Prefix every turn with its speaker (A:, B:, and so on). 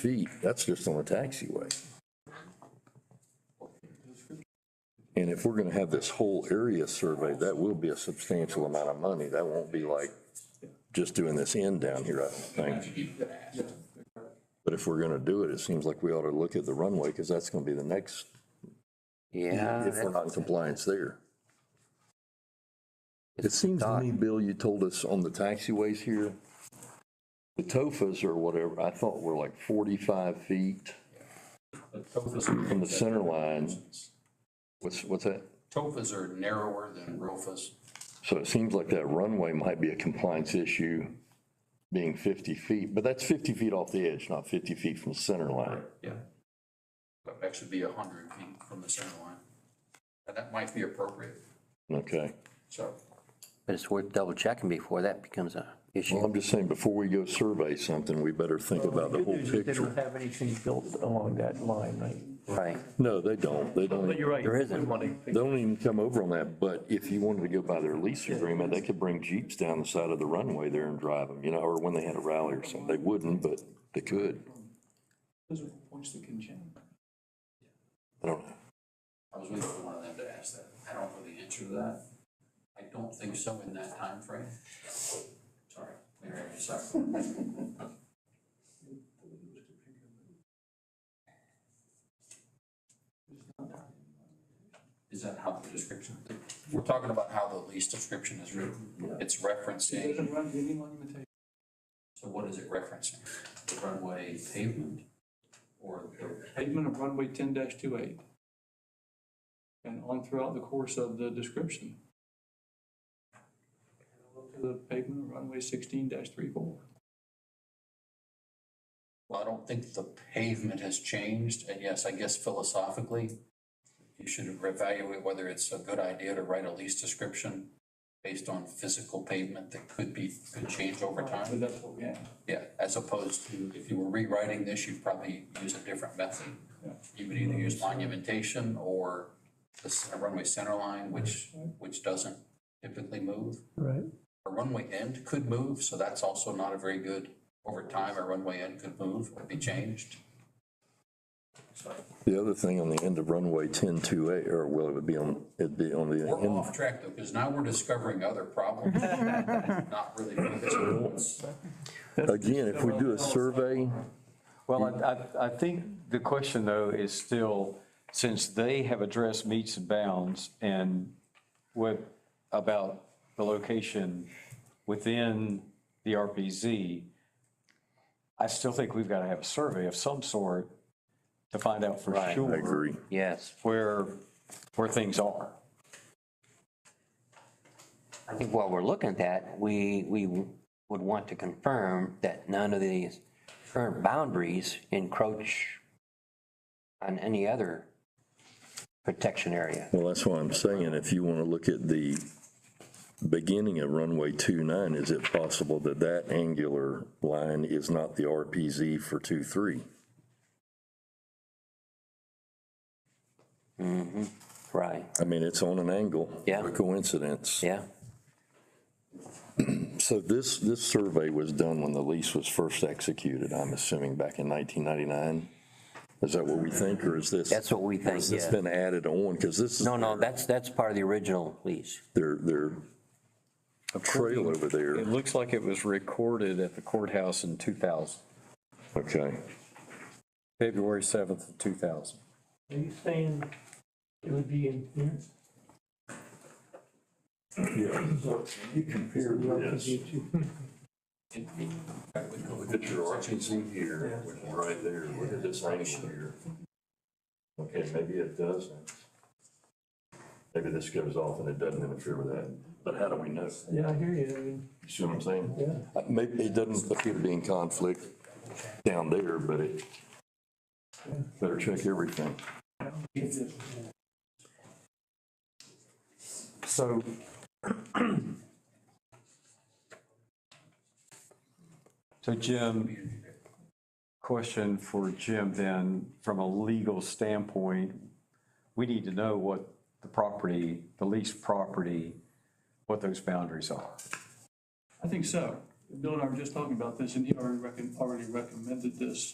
A: feet, that's just on a taxiway. And if we're gonna have this whole area surveyed, that will be a substantial amount of money. That won't be like just doing this end down here, I don't think. But if we're gonna do it, it seems like we ought to look at the runway, because that's gonna be the next,
B: Yeah.
A: if we're
B: that-
A: not in compliance there. It seems to me, Bill, you told us on the taxiways here, the TOFAs or whatever, I thought were like forty-five feet from the center line. What's, what's that?
C: TOFAs are narrower than ROFAs.
A: So it seems like that runway might be a compliance issue being fifty feet, but that's fifty feet off the edge, not fifty feet from the center line.
C: Yeah. But that should be a hundred feet from the center line. And that might be appropriate,
A: Okay.
C: so.
B: But it's worth double checking before that becomes a
A: Well,
B: issue.
A: I'm just saying, before we go survey something, we better think about the
D: Good
A: whole
D: news is They
A: picture.
D: don't have anything built along that line, right?
B: Right.
A: No, they don't. They don't.
D: But you're right.
B: There isn't.
D: We want to-
A: They don't even come over on that, but if you wanted to go by their lease agreement, they could bring Jeeps down the side of the runway there and drive them, you know, or when they had a rally or something. They wouldn't, but they could.
C: Those are points that can change.
A: I don't know.
C: I was waiting for one of them to ask that. I don't know the answer to that. I don't think so in that time frame. Sorry, Mayor, I'm sorry. Is that how the description, we're talking about how the lease description is written. It's referencing. So what is it referencing? The runway pavement or the
E: pavement of runway ten 28 And on throughout the course of the description. To The pavement of runway sixteen 34
C: Well, I don't think the pavement has changed, and yes, I guess philosophically, you should evaluate whether it's a good idea to write a lease description based on physical pavement that could be, could change over
E: But
C: time.
E: that's what we have.
C: Yeah, as opposed to, if you were rewriting this, you'd probably use a different method. You would either use monumentation or the center- runway center line, which, which doesn't typically move.
D: Right.
C: A runway end could move, so that's also not a very good, over time, a runway end could move, could be changed.
A: The other thing on the end of runway ten two eight, or well, it would be on, it'd be on the
C: We're
A: end.
C: off track though, because now we're discovering other problems. Not really focused on what's,
A: Again, if we do a survey,
F: Well, I- I, I think the question, though, is still, since they have addressed meets and bounds and what about the location within the RPZ, I still think we've got to have a survey of some sort to find out for
B: Right. I
A: I
F: sure
A: agree.
B: Yes.
F: where, where things are.
B: I think while we're looking at that, we, we would want to confirm that none of these current boundaries encroach on any other protection area.
A: Well, that's why I'm saying, if you want to look at the beginning of runway two nine, is it possible that that angular line is not the RPZ for two three?
B: Right,
A: I mean, it's on an angle.
B: Yeah.
A: A coincidence.
B: yeah.
A: So this, this survey was done when the lease was first executed, I'm assuming back in 1999? Is that what we think, or is this?
B: That's what we
A: or Has
B: think,
A: this
B: yeah.
A: been added on? Because this is
B: No, no, that's, that's part of the original lease.
A: their, their trail over there.
F: It looks like it was recorded at the courthouse in 2000,
A: Okay.
F: February 7th of 2000.
D: Are you saying it would be in here?
A: You compare
C: it- it-
A: Look at your RPZ here, which is right there, look at this angle here. Okay, maybe it doesn't. Maybe this goes off and it doesn't interfere with that, but how do we know?
D: Yeah, I hear you. I mean,
A: You see what I'm saying?
D: Yeah.
A: Uh, Maybe it doesn't appear to be in conflict down there, but it, better check everything.
F: So. So Jim, question for Jim then, from a legal standpoint, we need to know what the property, the leased property, what those boundaries are.
E: I think so. Bill and I were just talking about this, and he already recon, already recommended this